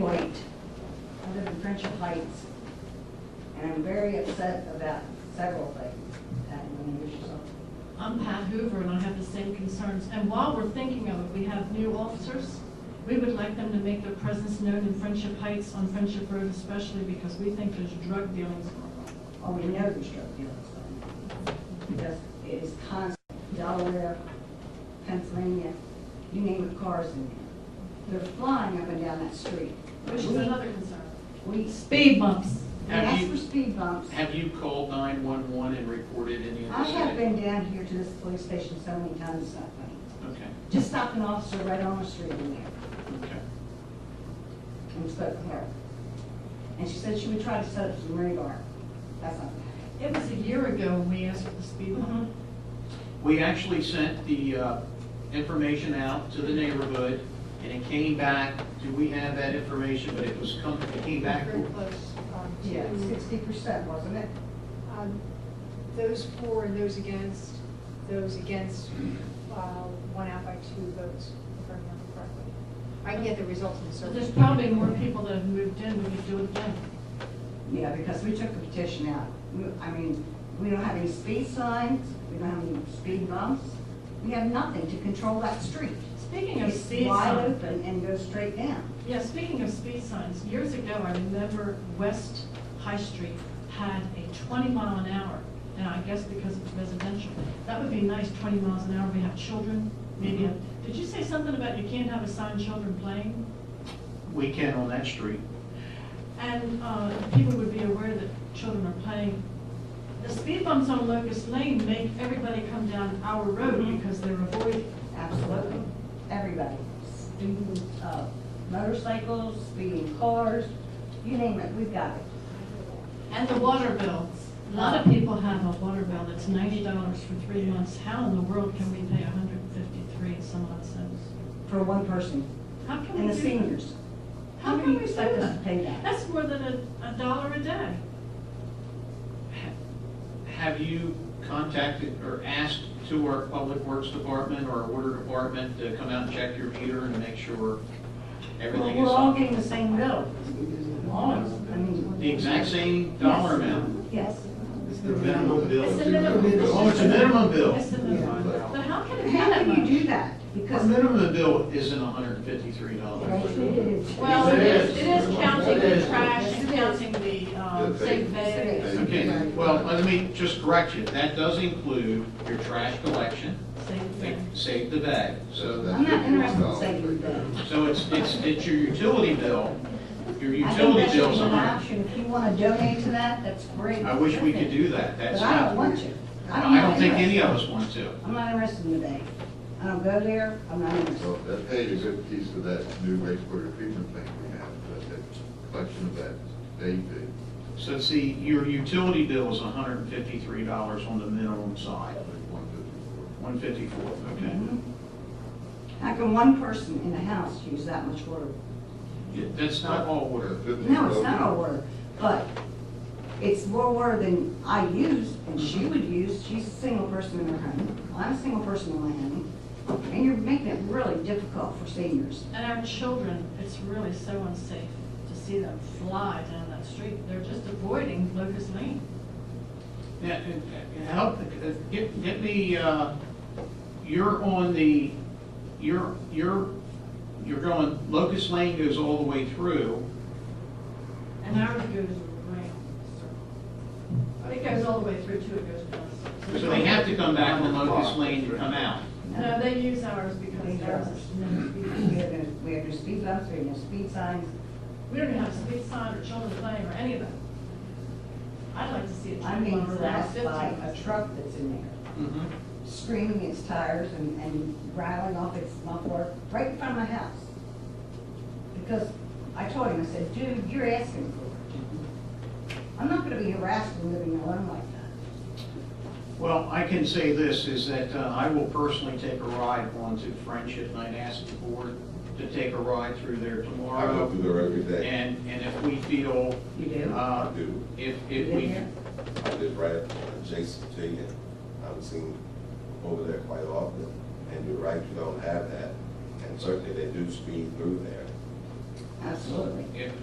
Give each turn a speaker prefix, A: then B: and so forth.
A: White. I live in Friendship Heights, and I'm very upset about several things. Pat, you want to introduce yourself?
B: I'm Pat Hoover, and I have the same concerns. And while we're thinking of it, we have new officers. We would like them to make their presence known in Friendship Heights, on Friendship Road especially, because we think there's drug dealings going on.
A: Oh, we know there's drug dealers on it. Because it is constant, Delaware, Pennsylvania, you name it, cars in there. They're flying up and down that street.
B: Which is
A: We-
B: another concern.
A: We,
B: Speed bumps.
A: we
C: Have
A: ask
C: you-
A: for speed bumps.
C: Have you called 911 and reported any of
A: I
C: this?
A: have been down here to this police station so many times, it's not funny.
C: Okay,
A: Just stopped an officer right on the street in there.
C: okay.
A: and spoke with her. And she said she would try to set up some radar. That's not,
B: It was a year ago when we asked for the speed limit.
C: We actually sent the uh, information out to the neighborhood, and it came back, do we have that information, but it was come, it came back.
D: Very close um,
A: yeah,
D: to,
A: sixty percent, wasn't it?
D: um, those for and those against, those against, uh, won out by two votes, if I remember correctly. I can get the results in a
B: So
D: certain.
B: there's probably more people that have moved in, we could do it again.
A: Yeah, because we took the petition out. We- I mean, we don't have any speed signs, we don't have any speed bumps. We have nothing to control that street.
B: Speaking of
A: It's
B: speed
A: wide
B: signs.
A: open and goes straight down.
B: Yeah, speaking of speed signs, years ago, I remember West High Street had a twenty mile an hour, and I guess because it's residential, that would be nice, twenty miles an hour, we have children, maybe, a- did you say something about you can't have a sign children playing?
C: We can on that street.
B: And, uh, people would be aware that children are playing. The speed bumps on Locust Lane make everybody come down our road because they're avoiding.
A: Absolutely. Everybody, speeding, uh, motorcycles, speeding cars, you name it, we've got it.
B: And the water bills. A lot of people have a water bill that's ninety dollars for three months. How in the world can we pay $153 and some odd cents?
A: For one person
B: How can
A: and
B: we
A: the
B: do that?
A: seniors.
B: How
A: do
B: can
A: you
B: we do
A: expect us to
B: that?
A: Pay that.
B: That's more than a, a dollar a day.
C: Ha- Have you contacted or asked to our Public Works Department or our Water Department to come out and check your meter and make sure
A: Well,
C: everything is
A: we're all
C: on?
A: getting the same bill. All of us, I mean.
C: The exact same dollar amount?
A: Yes.
E: It's the minimum bill.
B: It's the minimum.
C: Oh, it's a minimum bill?
B: It's the minimum. But how can it be
A: How
B: that
A: can you do
B: much?
A: that?
C: The
A: Because.
C: minimum bill isn't hundred and fifty-three dollars.
B: Well, it is, it is counting
E: It
B: the
E: is.
B: trash, it's counting the, um,
E: The
B: safe
E: thing.
B: beds,
C: Okay, well, let me just correct you. That does include your trash collection,
B: safe bed.
C: save the bag. So,
A: I'm not interested in saving that.
C: so it's, it's, it's your utility bill. Your
A: I think
C: utility
A: that should
C: bill's
A: be
C: a
A: an
C: hundred.
A: option. If you want to donate to that, that's great.
C: I wish we could do that. That's
A: But I don't
C: not,
A: want you.
C: I don't think any of us want to.
A: I'm not interested in the bank. I don't go there. I'm not interested.
E: Well, that paid a good piece of that new wastewater treatment plant we have, but that collection of that, they did.
C: So see, your utility bill is hundred and fifty-three dollars on the minimum side. One fifty-four, okay.
A: Mhm. How can one person in a house use that much water?
C: Yeah, That's not all water.
A: No, it's not all water, but it's more water than I use and she would use. She's a single person in her home. I'm a single person in my home. And you're making it really difficult for seniors.
B: And our children, it's really so unsafe to see them fly down that street. They're just avoiding Locust Lane.
C: Yeah, and- and help, uh, get, get me, uh, you're on the, you're, you're, you're going, Locust Lane goes all the way through.
B: And ours goes around. It goes all the way through to it goes past.
C: So they have to come back on Locust Lane to come out.
B: No, they use ours because ours is no
A: We
B: speed.
A: have no, we have no speed bumps, we have no speed signs.
B: We don't have a speed sign or children playing or any of that. I'd like to see a
A: I'm
B: twenty
A: being
B: mile an hour,
A: harassed
B: fifteen.
A: by a truck that's in there,
C: Mhm.
A: screaming its tires and, and rattling off its muffler right in front of my house. Because I told him, I said, dude, you're asking for it. I'm not gonna be harassed and living alone like that.
C: Well, I can say this, is that uh, I will personally take a ride onto Friendship, and I'd ask the board to take a ride through there
E: I go
C: tomorrow.
E: through there every day.
C: And, and if we feel,
A: You do?
E: I
C: uh,
E: do.
C: if,
A: You
C: if
A: live
C: we,
A: here?
E: I live right adjacent to you. I'm seen over there quite often. And you're right, you don't have that. And certainly they do speed through there.
F: Absolutely.
A: If-